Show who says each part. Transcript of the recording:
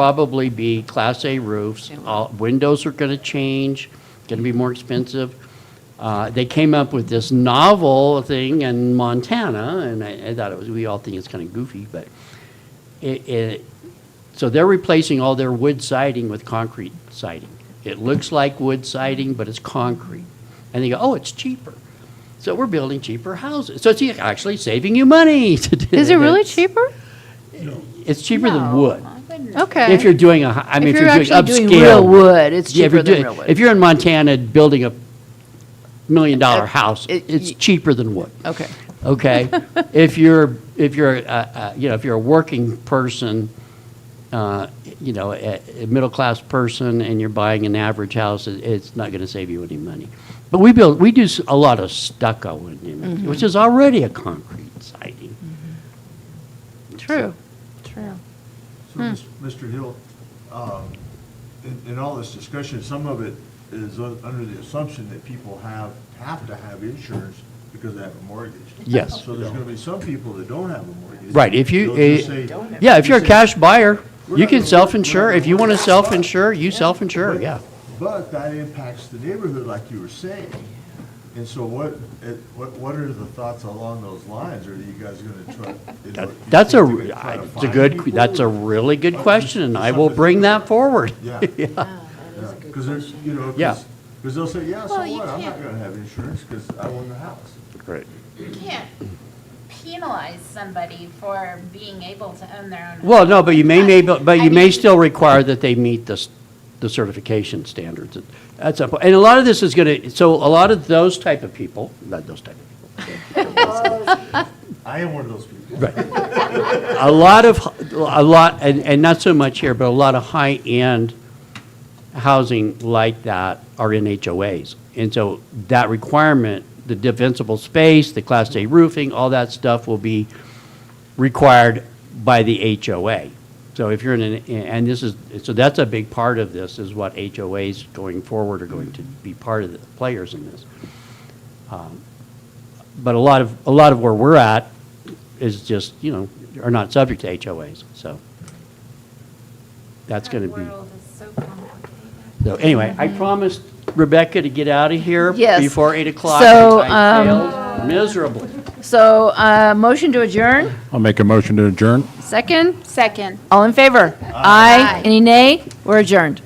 Speaker 1: probably be Class A roofs.
Speaker 2: They will.
Speaker 1: All- Windows are going to change, going to be more expensive. Uh, They came up with this novel thing in Montana, and I I thought it was, we all think it's kind of goofy, but it, it- so they're replacing all their wood siding with concrete siding. It looks like wood siding, but it's concrete. And they go, oh, it's cheaper. So we're building cheaper houses. So it's actually saving you money. to do
Speaker 2: Is it really
Speaker 1: this.
Speaker 2: cheaper?
Speaker 1: It's cheaper than wood.
Speaker 2: Okay.
Speaker 1: If you're doing a, hi- I mean, if you're doing upscale.
Speaker 2: actually doing real wood, it's
Speaker 1: Yeah, if
Speaker 2: cheaper
Speaker 1: you're
Speaker 2: than
Speaker 1: doing-
Speaker 2: real wood.
Speaker 1: If you're in Montana building a million-dollar
Speaker 2: Uh,
Speaker 1: house,
Speaker 2: it-
Speaker 1: it's
Speaker 2: y- Oh.
Speaker 1: cheaper than wood,
Speaker 2: Okay.
Speaker 1: okay? If you're, if you're, uh, uh, you know, if you're a working person, uh, you know, a a middle-class person, and you're buying an average house, it- it's not going to save you any money. But we build, we do s- a lot of stucco, in Newman,
Speaker 2: Mm-hmm.
Speaker 1: which is already a concrete siding.
Speaker 2: True, true.
Speaker 3: So,
Speaker 1: Hmm.
Speaker 3: Mis- Mr. Hill, um, in, in all this discussion, some of it is un- under the assumption that people have, have to have insurance because they have a mortgage.
Speaker 1: Yes.
Speaker 3: So there's gonna be some people that don't have a mortgage.
Speaker 1: Right, if you,
Speaker 3: They'll just
Speaker 1: eh,
Speaker 3: say-
Speaker 1: yeah, if you're a
Speaker 3: say-
Speaker 1: cash buyer,
Speaker 3: We're
Speaker 1: you
Speaker 3: not
Speaker 1: can
Speaker 3: gonna-
Speaker 1: self-insure,
Speaker 3: we're not
Speaker 1: if you want to
Speaker 3: gonna-
Speaker 1: self-insure, you self-insure,
Speaker 3: But-
Speaker 1: yeah.
Speaker 3: But that impacts the neighborhood, like you were saying. And so what, it- what, what are the thoughts along those lines? Are you guys gonna try? you know, do you
Speaker 1: That's a,
Speaker 3: think they're gonna try to
Speaker 1: it's a
Speaker 3: find
Speaker 1: good,
Speaker 3: people?
Speaker 1: that's a really good
Speaker 3: Or
Speaker 1: question, and I will bring that forward.
Speaker 3: Yeah.
Speaker 4: Oh, That is a good
Speaker 3: Because there's, you know,
Speaker 1: Yeah.
Speaker 3: because they'll say, yeah, so
Speaker 4: Well, you
Speaker 3: what, I'm not
Speaker 4: can't-
Speaker 3: gonna have insurance because I own the house.
Speaker 4: You can't penalize somebody for being able to own their own.
Speaker 1: Well,
Speaker 4: home.
Speaker 1: no, but you may, may,
Speaker 4: I-
Speaker 1: but
Speaker 4: I
Speaker 1: you may
Speaker 4: mean,
Speaker 1: still require that they meet the, s- the certification standards. That's, a- and a lot of this is going to, so a lot of those type of people, not those type of people,
Speaker 3: I am one of those people.
Speaker 1: Right. A lot of, a lot, and, and not so much here, but a lot of high-end housing like that are in HOAs. And so that requirement, the defensible space, the Class A roofing, all that stuff will be required by the HOA. So if you're in an, and this is, so that's a big part of this, is what HOAs going forward are going to be part of the players in this. Um, But a lot of, a lot of where we're at is just, you know, are not subject to HOAs, so that's
Speaker 4: that
Speaker 1: going to be.
Speaker 4: world is so complicated.
Speaker 1: So anyway, I promised Rebecca to get out of here
Speaker 2: Mm-hmm. Yes.
Speaker 1: before 8 o'clock.
Speaker 2: So, um,
Speaker 1: which I failed miserably.
Speaker 2: So, uh, motion to adjourn,
Speaker 5: I'll make a motion to adjourn.
Speaker 2: second?
Speaker 6: Second.
Speaker 2: All in favor? Aye. Any nay? We're adjourned.